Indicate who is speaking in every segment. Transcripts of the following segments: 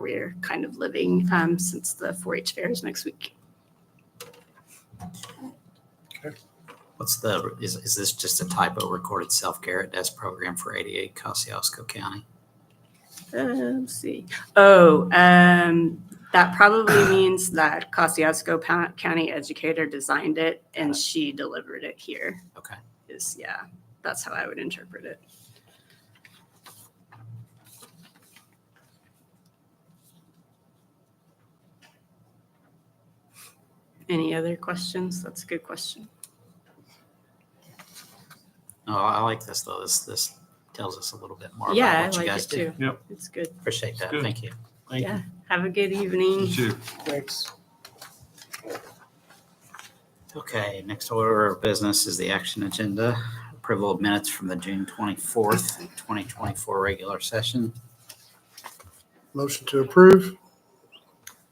Speaker 1: we're kind of living um, since the 4 H fair is next week.
Speaker 2: What's the, is, is this just a typo recorded self-care at desk program for 88 Kosciuszko County?
Speaker 1: Uh, let's see. Oh, um, that probably means that Kosciuszko Pa- County educator designed it and she delivered it here.
Speaker 2: Okay.
Speaker 1: Is, yeah, that's how I would interpret it. Any other questions? That's a good question.
Speaker 2: Oh, I like this though. This, this tells us a little bit more
Speaker 1: Yeah, I
Speaker 2: about what you
Speaker 1: like
Speaker 2: guys
Speaker 1: it
Speaker 2: do.
Speaker 1: too.
Speaker 3: Yep.
Speaker 1: It's good.
Speaker 2: Appreciate that.
Speaker 3: Good.
Speaker 2: Thank you.
Speaker 3: Thank
Speaker 1: Yeah. Have a good
Speaker 3: you.
Speaker 1: evening.
Speaker 3: You too.
Speaker 4: Thanks.
Speaker 2: Okay, next order of business is the action agenda. Approval of minutes from the June 24th, 2024 regular session.
Speaker 4: Motion to approve.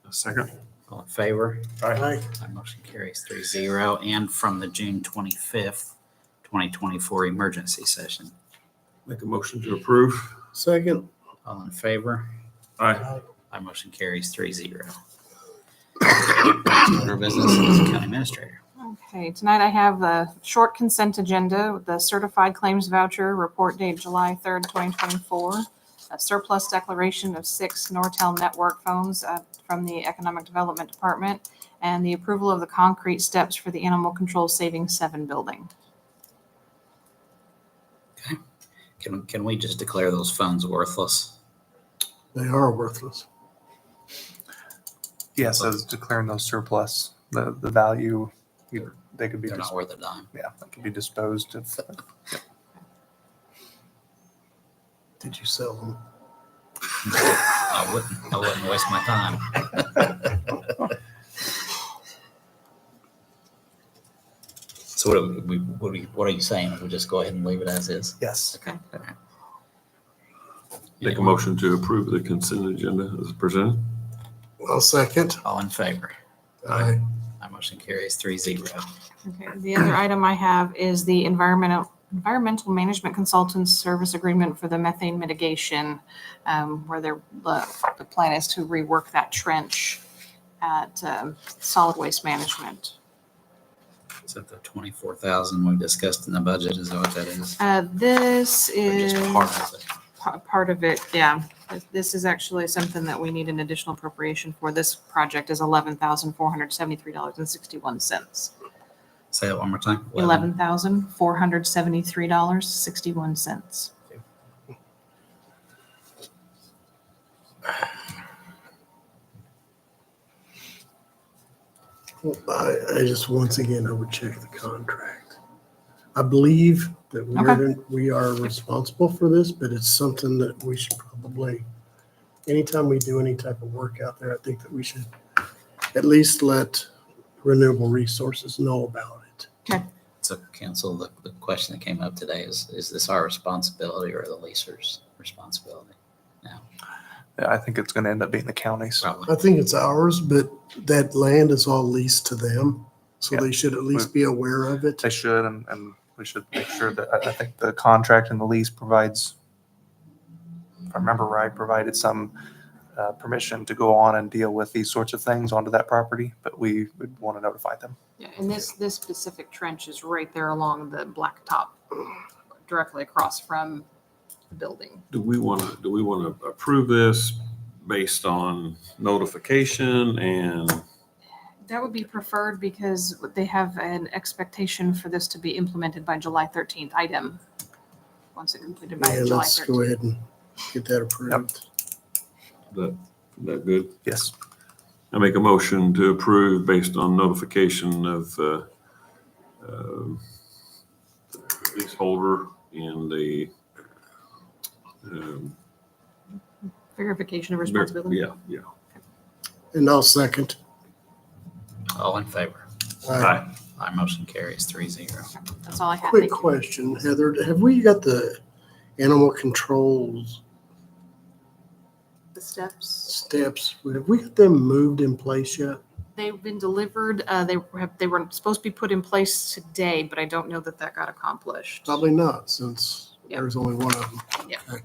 Speaker 3: A second.
Speaker 2: All in favor?
Speaker 4: Aye.
Speaker 2: That motion carries three zero. And from the June 25th, 2024 emergency session.
Speaker 3: Make a motion to approve.
Speaker 4: Second.
Speaker 2: All in favor?
Speaker 3: Aye.
Speaker 2: My motion carries three zero. Order of business is county administrator.
Speaker 5: Okay, tonight I have the short consent agenda, with the certified claims voucher, report date July 3rd, 2024, a surplus declaration of six Nortel network phones uh, from the Economic Development Department, and the approval of the concrete steps for the Animal Control Saving 7 building.
Speaker 2: Can, can we just declare those funds worthless?
Speaker 4: They are worthless.
Speaker 6: Yeah, so it's declaring those surplus, the, the value, you- they could be,
Speaker 2: They're not
Speaker 6: dis-
Speaker 2: worth a dime.
Speaker 6: yeah, they could be disposed of.
Speaker 4: Did you sell them?
Speaker 2: I wouldn't, I wouldn't waste my time. So what are we, what are you, what are you saying? We just go ahead and leave it as is?
Speaker 6: Yes.
Speaker 2: Okay.
Speaker 3: Make a motion to approve the consent agenda as presented.
Speaker 4: I'll second.
Speaker 2: All in favor?
Speaker 4: Aye.
Speaker 2: My motion carries three zero.
Speaker 5: Okay, the other item I have is the environmental, environmental management consultants service agreement for the methane mitigation, um, where they're, the, the plan is to rework that trench at, um, solid waste management.
Speaker 2: Is that the twenty-four thousand we discussed in the budget? Is that what that is?
Speaker 5: Uh, this
Speaker 2: Or
Speaker 5: is.
Speaker 2: just part of it?
Speaker 5: pa- part of it, yeah. This- This is actually something that we need an additional appropriation for. This project is eleven thousand four hundred seventy-three dollars and sixty-one cents.
Speaker 2: Say that one more time.
Speaker 5: Eleven thousand four hundred seventy-three dollars, sixty-one cents.
Speaker 4: I, I just, once again, I would check the contract. I believe that we're, we are responsible for this, but it's something that we should probably, anytime we do any type of work out there, I think that we should at least let renewable resources know about it.
Speaker 2: So council, the, the question that came up today is, is this our responsibility or the leaser's responsibility?
Speaker 6: Yeah, I think it's going to end up being the county's.
Speaker 4: I
Speaker 2: Probably.
Speaker 4: think it's ours, but that land is all leased to them, so they should at least be aware of it.
Speaker 6: They should, and, and we should make sure that, I, I think the contract and the lease provides, if I remember right, provided some, uh, permission to go on and deal with these sorts of things onto that property, but we would want to notify them.
Speaker 5: Yeah, and this, this specific trench is right there along the blacktop, directly across from the building.
Speaker 3: Do we want to, do we want to approve this based on notification and?
Speaker 5: That would be preferred because they have an expectation for this to be implemented by July thirteenth item. Once it completed by
Speaker 4: Yeah,
Speaker 5: July
Speaker 4: let's go
Speaker 5: thirteenth.
Speaker 4: ahead and get that approved.
Speaker 3: That, that good?
Speaker 6: Yes.
Speaker 3: I make a motion to approve based on notification of, uh, um, leaseholder and the, um,
Speaker 5: Verification of responsibility.
Speaker 3: Yeah, yeah.
Speaker 4: And I'll second.
Speaker 2: All in favor?
Speaker 4: Uh,
Speaker 2: My motion carries three zero.
Speaker 5: That's all I had.
Speaker 4: Quick
Speaker 5: Thank you.
Speaker 4: question, Heather, have we got the animal controls
Speaker 5: The steps,
Speaker 4: steps, have we got them moved in place yet?
Speaker 5: they've been delivered, uh, they have, they were supposed to be put in place today, but I don't know that that got accomplished.
Speaker 4: Probably not, since
Speaker 5: Yeah.
Speaker 4: there's only one of them.
Speaker 5: Yeah.
Speaker 4: Okay.